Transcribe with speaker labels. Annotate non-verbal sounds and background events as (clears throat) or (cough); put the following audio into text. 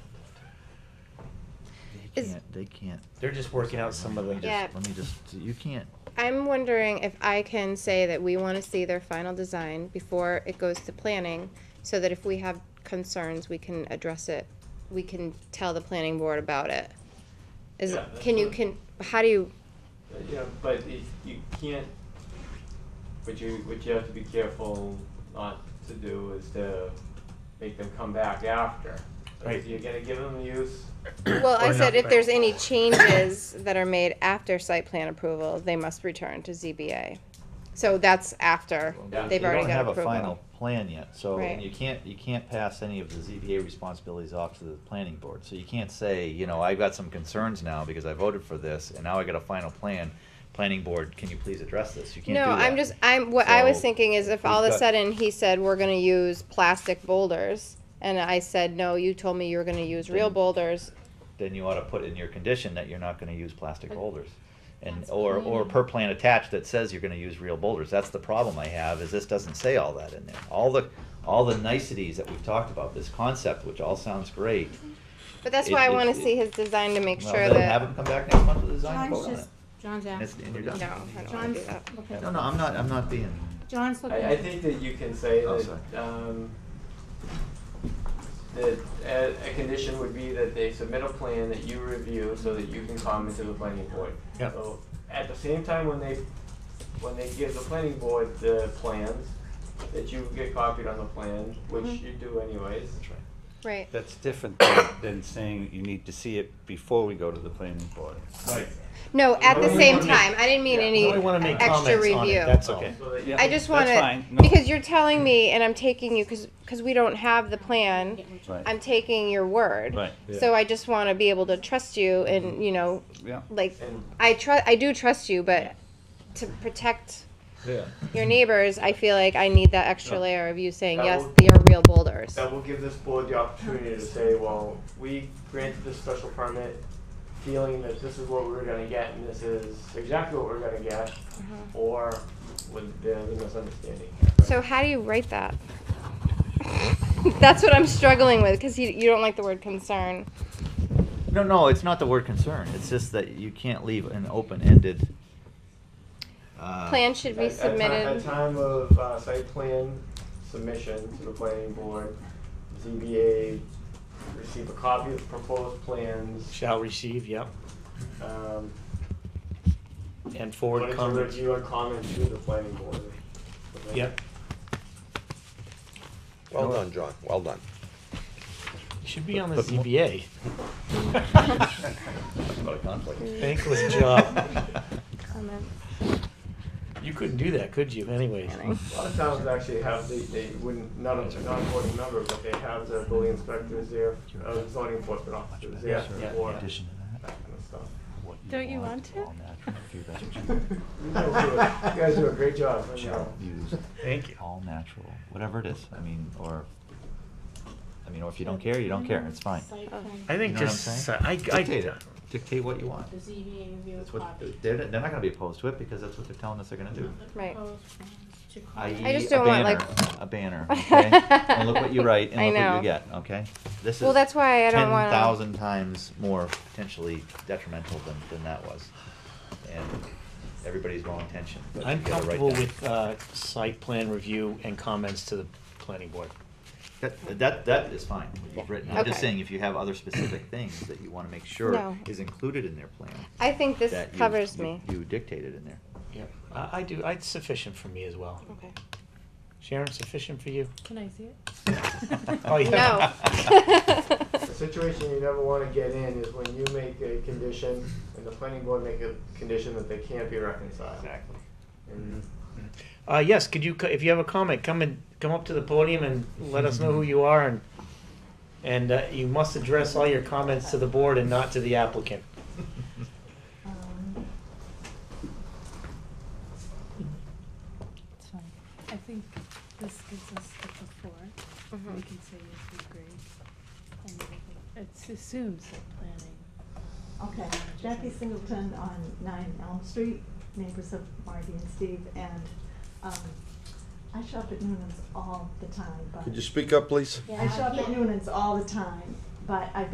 Speaker 1: Is-
Speaker 2: can't, they can't.
Speaker 3: They're just working out some of the-
Speaker 2: Let me
Speaker 1: Yeah.
Speaker 2: just- Let me just, you can't,
Speaker 1: I'm wondering if I can say that we want to see their final design before it goes to planning, so that if we have concerns, we can address it, we can tell the planning board about it. Is,
Speaker 4: Yeah, that's
Speaker 1: can you,
Speaker 4: fine.
Speaker 1: can, how do
Speaker 4: (clears throat)
Speaker 1: you,
Speaker 4: Yeah, but if you can't, what you, what you have to be careful not to do is to make them come back after. So
Speaker 3: Right.
Speaker 4: If you're gonna give them use,
Speaker 1: well, I
Speaker 3: Or
Speaker 1: said
Speaker 3: not,
Speaker 1: if
Speaker 3: but-
Speaker 1: there's any changes that are made after site plan approval, they must return to ZBA. So that's after,
Speaker 4: Yeah.
Speaker 1: they've
Speaker 2: you
Speaker 1: already
Speaker 2: don't
Speaker 1: got
Speaker 2: have a
Speaker 1: approval.
Speaker 2: final plan yet, so, and
Speaker 1: Right.
Speaker 2: you can't, you can't pass any of the ZBA responsibilities off to the planning board. So you can't say, you know, I've got some concerns now because I voted for this, and now I got a final plan. Planning board, can you please address this? You can't do
Speaker 1: No,
Speaker 2: that.
Speaker 1: I'm just, I'm, what I was
Speaker 2: So,
Speaker 1: thinking is if all of
Speaker 2: we've
Speaker 1: a
Speaker 2: got-
Speaker 1: sudden he said, we're gonna use plastic boulders, and I said, no, you told me you were gonna use real
Speaker 2: Then-
Speaker 1: boulders,
Speaker 2: Then you ought to put in your condition that you're not gonna use plastic boulders. And, or, or per plan attached that says you're gonna use real boulders. That's the problem I have, is this doesn't say all that in there. All the, all the niceties that we've talked about, this concept, which all sounds great.
Speaker 1: but that's
Speaker 2: It-
Speaker 1: why I
Speaker 2: it-
Speaker 1: wanna
Speaker 2: it-
Speaker 1: see his design to make
Speaker 2: Well,
Speaker 1: sure
Speaker 2: then Have them
Speaker 1: that.
Speaker 2: come back next month with a design and
Speaker 5: John's
Speaker 2: vote on
Speaker 5: just, John's
Speaker 2: It's-
Speaker 5: asking.
Speaker 2: and you're
Speaker 1: No, I
Speaker 2: done.
Speaker 1: don't wanna
Speaker 5: John's,
Speaker 1: do that.
Speaker 5: okay.
Speaker 2: it. No, no, I'm not, I'm not being,
Speaker 5: John's looking.
Speaker 4: I, I think that you can say
Speaker 2: Oh,
Speaker 4: that,
Speaker 2: sorry.
Speaker 4: um, that a, a condition would be that they submit a plan that you review so that you can comment to the planning board.
Speaker 3: Yep.
Speaker 4: So, at the same time, when they, when they give the planning board the plans, that you get copied on the plan, which
Speaker 1: Mhm.
Speaker 4: you do anyways.
Speaker 1: Right,
Speaker 6: That's different than- than saying you need to see it before we go to the planning board.
Speaker 3: Right.
Speaker 1: no, at the
Speaker 4: Nobody
Speaker 1: same
Speaker 4: wanna make-
Speaker 1: time, I didn't mean
Speaker 4: Yeah,
Speaker 1: any
Speaker 3: Only wanna make
Speaker 1: extra
Speaker 3: comments on it,
Speaker 1: review.
Speaker 2: Oh.
Speaker 3: that's all.
Speaker 6: Okay.
Speaker 4: So that-
Speaker 1: I just
Speaker 6: That's
Speaker 1: wanna,
Speaker 6: fine. No.
Speaker 1: because you're telling me, and I'm taking you, cause, 'cause we don't have the plan,
Speaker 6: Right.
Speaker 1: I'm taking your word.
Speaker 6: Right.
Speaker 1: So I just wanna be able to trust you and, you know,
Speaker 2: (laughs)
Speaker 6: Yeah.
Speaker 1: like,
Speaker 4: And
Speaker 1: I trust, I do trust you, but to protect
Speaker 3: Yeah.
Speaker 1: your neighbors, I feel like I need that extra layer of you saying,
Speaker 4: That
Speaker 1: yes,
Speaker 4: will-
Speaker 1: they are real boulders.
Speaker 4: that will give this board the opportunity to say, well, we granted this special permit feeling that this is what we were gonna get and this is exactly what we're gonna get, or with the the misunderstanding.
Speaker 1: Mm-hmm. So how do you write that? (laughs) That's what I'm struggling with, cause you, you don't like the word concern.
Speaker 2: no, no, it's not the word concern, it's just that you can't leave an open-ended. uh,
Speaker 1: Plan should be
Speaker 4: At- at ti- At
Speaker 1: submitted,
Speaker 4: time of uh, site plan submission to the planning board, ZBA receive a copy of the proposed plans,
Speaker 3: Shall receive, yep,
Speaker 4: um,
Speaker 3: and
Speaker 4: put
Speaker 3: forward
Speaker 4: into
Speaker 3: comments.
Speaker 4: review and comment to the planning board.
Speaker 3: Yep.
Speaker 7: Well done, John, well done.
Speaker 3: You Should be on the ZBA.
Speaker 2: What a conflict.
Speaker 3: Thankless job.
Speaker 2: (laughs)
Speaker 1: Comment.
Speaker 3: You couldn't do that, could you, anyways? (laughs)
Speaker 4: A lot of towns actually have, they, they wouldn't, not a, not a board member, but they have the building inspectors there, uh, zoning enforcement officers there
Speaker 3: Yeah,
Speaker 4: for
Speaker 3: yeah.
Speaker 4: that
Speaker 2: Addition to that,
Speaker 4: kind of stuff.
Speaker 2: what
Speaker 5: Don't you want to?
Speaker 2: all natural, few vegetables. (laughs)
Speaker 4: You guys do a- you guys do a great job. I
Speaker 2: shall
Speaker 4: know.
Speaker 2: use
Speaker 3: Thank you.
Speaker 2: all natural, whatever it is. I mean, or, I mean, or if you don't care, you don't care. It's fine.
Speaker 3: I
Speaker 2: You
Speaker 3: think
Speaker 2: know what I'm
Speaker 3: just,
Speaker 2: saying?
Speaker 3: I,
Speaker 2: Dictate
Speaker 3: I,
Speaker 2: it. Dictate what you want.
Speaker 5: The ZBA review
Speaker 2: That's what
Speaker 5: copy.
Speaker 2: they're, they're not going to be opposed to it because that's what they're telling us they're going to do.
Speaker 1: Right.
Speaker 2: I.e.,
Speaker 1: I just
Speaker 2: a
Speaker 1: don't want,
Speaker 2: banner,
Speaker 1: like-
Speaker 2: a
Speaker 1: (laughs)
Speaker 2: banner. Okay, and look what you write, and
Speaker 1: I
Speaker 2: look what
Speaker 1: know.
Speaker 2: you get. Okay, this is
Speaker 1: Well, that's why I don't
Speaker 2: ten
Speaker 1: wanna-
Speaker 2: thousand times more potentially detrimental than, than that was, and everybody's well intentioned. but
Speaker 3: I'm
Speaker 2: you gotta write
Speaker 3: comfortable
Speaker 2: that.
Speaker 3: with, uh, site plan review and comments to the planning board.
Speaker 2: That, that, that is fine, what you've written. I'm just
Speaker 1: Okay.
Speaker 2: saying, if you have other specific things that you wanna make
Speaker 1: No.
Speaker 2: sure is included in their plan.
Speaker 1: I think this
Speaker 2: that you-
Speaker 1: covers
Speaker 2: you-
Speaker 1: me.
Speaker 2: You dictated in there.
Speaker 3: Yeah. I, I do, it's sufficient for me as well.
Speaker 1: Okay.
Speaker 3: Sharon, sufficient for you?
Speaker 5: Can I see it?
Speaker 3: Oh, yeah. (laughs)
Speaker 1: No.
Speaker 4: (laughs)
Speaker 1: (laughs)
Speaker 4: The situation you never wanna get in is when you make a condition and the planning board make a condition that they can't be reconciled. Exactly. And
Speaker 3: Uh, yes, could you, co- if you have a comment, come and, come up to the podium and let us know who you are and, and uh, you must address all your comments to the board and not to the applicant.
Speaker 5: Um, It's fine. I think this gives us the before. We
Speaker 1: Mhm.
Speaker 5: can say yes, we agree. And we can- It assumes that planning.
Speaker 8: Okay, Jackie Singleton on nine Elm Street, neighbors of Marty and Steve, and, um, I shop at Noonan's all the time, but.
Speaker 7: Could you speak up, please?
Speaker 8: I shop at Noonan's all the time, but I've